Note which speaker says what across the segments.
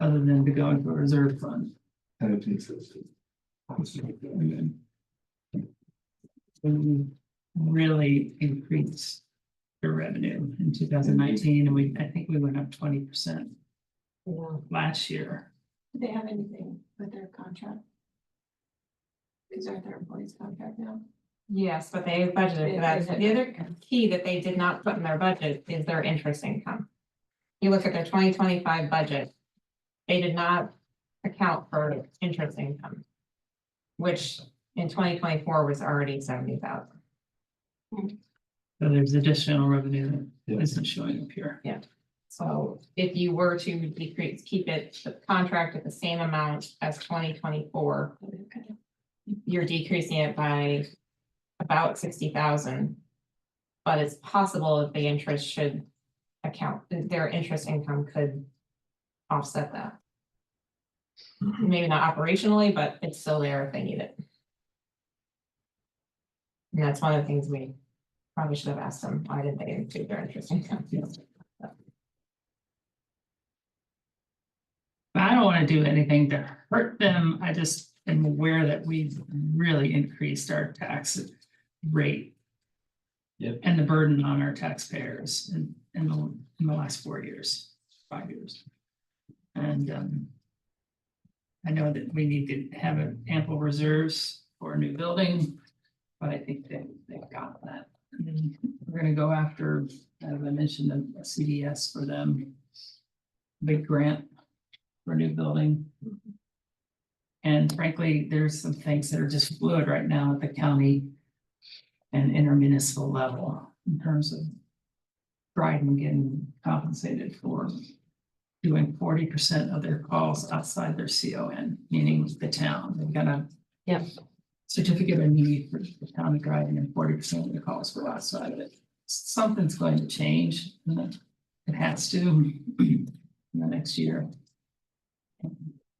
Speaker 1: Other than to go into a reserve fund.
Speaker 2: kind of consistent. And
Speaker 1: We
Speaker 2: then,
Speaker 1: really increased your revenue in two thousand nineteen, and we, I think we went up twenty percent
Speaker 3: Do
Speaker 1: last year.
Speaker 3: they have anything with their contract? Is that their employees contract now?
Speaker 4: Yes, but they budgeted for that. So The other key that they did not put in their budget is their interest income. You look at their twenty twenty-five budget, they did not account for interest income. Which in twenty twenty-four was already seventy thousand.
Speaker 1: So there's additional revenue
Speaker 2: Yeah.
Speaker 1: that isn't showing up here.
Speaker 4: So if you were to decrease, keep it, the contract at the same amount as twenty twenty-four,
Speaker 3: Okay.
Speaker 4: you're decreasing it by about sixty thousand. But it's possible that the interest should account, that their interest income could offset that. Maybe not operationally, but it's still there if they need it. And that's one of the things we probably should have asked them, why did they include their interest income?
Speaker 1: But I don't wanna do anything to hurt them, I just am aware that we've really increased our tax rate.
Speaker 2: Yep.
Speaker 1: And the burden on our taxpayers in, in the, in the last four years, five years. And, um. I know that we need to have ample reserves for a new building, but I think they, they've got that. And then We're gonna go after, as I mentioned, a a CDS for them. Big grant for a new building. And frankly, there's some things that are just fluid right now at the county and intermunicipal level in terms of Dryden getting compensated for doing forty percent of their calls outside their C O N, meaning the town. They've got a
Speaker 4: Yep.
Speaker 1: certificate of need for the town of Dryden and forty percent of the calls were outside of it. Something's going to change. and It has to in the next year.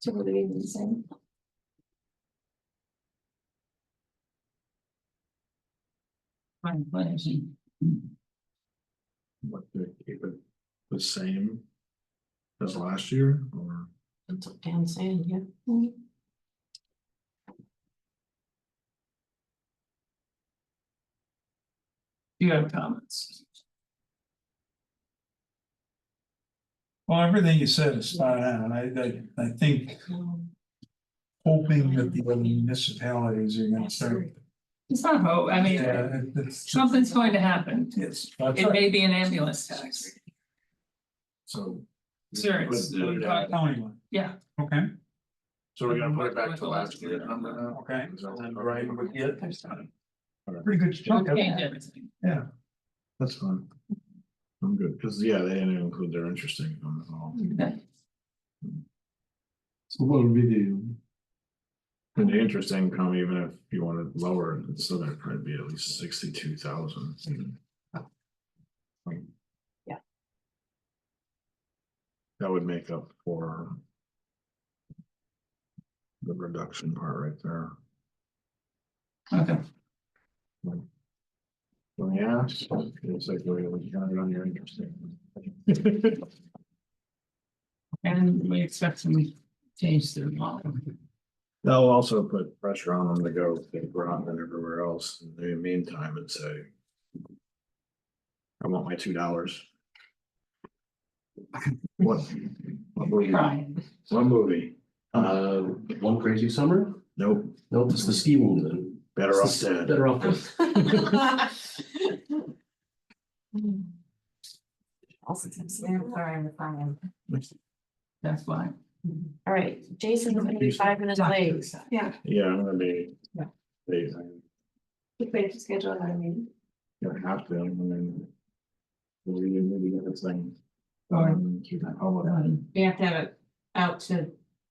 Speaker 3: So what are they even saying?
Speaker 1: Fine, but I think-
Speaker 5: What they keep it the same as last year or?
Speaker 3: That's what Dan's saying, yeah.
Speaker 1: Do you have comments?
Speaker 6: Well, everything you said is spot on, I, I, I think hoping that the other municipalities are gonna start.
Speaker 1: It's not hope, I mean,
Speaker 6: Yeah, it- it's-
Speaker 1: something's going to happen.
Speaker 6: it's- that's
Speaker 1: It
Speaker 6: right.
Speaker 1: may be an ambulance tax.
Speaker 5: So.
Speaker 1: Sure, it's-
Speaker 5: Put it at-
Speaker 6: County one.
Speaker 1: Yeah.
Speaker 6: Okay,
Speaker 5: So we're gonna put it back to last year number now?
Speaker 6: okay.
Speaker 5: Is that
Speaker 6: And
Speaker 5: what-
Speaker 6: Right, but yeah,
Speaker 1: There's not-
Speaker 6: pretty good chunk of
Speaker 1: Change
Speaker 6: it.
Speaker 1: everything.
Speaker 5: That's fine. I'm good, cause yeah, they didn't include their interest income at all.
Speaker 2: so what would we do?
Speaker 5: And the interest income, even if you wanted lower, it, it's still gonna probably be at least sixty-two thousand.
Speaker 3: Yeah.
Speaker 5: That would make up for. The reduction part right there.
Speaker 1: Okay,
Speaker 5: Well, Yeah, so it's like the way we counted on your interest. income.
Speaker 1: and we expect some change to the model.
Speaker 5: That'll also put pressure on them to go to Groton and everywhere else in the meantime and say. I want my two dollars. What? What movie?
Speaker 1: Brian,
Speaker 5: What movie?
Speaker 2: Uh, one crazy summer?
Speaker 5: Nope,
Speaker 2: Nope, it's the ski woman.
Speaker 5: better off dead.
Speaker 2: Better off. dead.
Speaker 4: Also, I'm sorry, I'm fine.
Speaker 1: that's why.
Speaker 7: All right, Jason's gonna be five minutes late.
Speaker 3: Yeah,
Speaker 5: Yeah, I'm gonna be.
Speaker 4: Yeah.
Speaker 5: They, I'm
Speaker 3: we could just schedule another meeting.
Speaker 5: gonna have to, and then. We really need to get this thing.
Speaker 1: Or,
Speaker 5: um, keep that all up.
Speaker 1: um,
Speaker 4: We have to have it out to,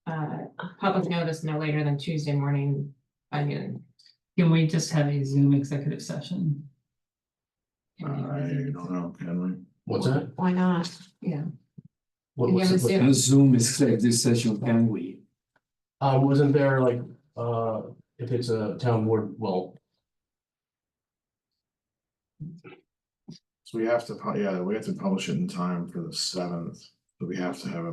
Speaker 4: uh, public notice no later than Tuesday morning by noon.
Speaker 1: Can we just have a Zoom executive session?
Speaker 5: I don't know, can we?
Speaker 2: What's that?
Speaker 7: Why not?
Speaker 2: What
Speaker 4: You
Speaker 2: was
Speaker 4: have
Speaker 2: it?
Speaker 4: a Zoom.
Speaker 8: The Zoom is like this session, can we?
Speaker 2: Uh, wasn't there like, uh, if it's a town board, well,
Speaker 5: So we have to, pu- yeah, we have to publish it in time for the seventh, but we have to have it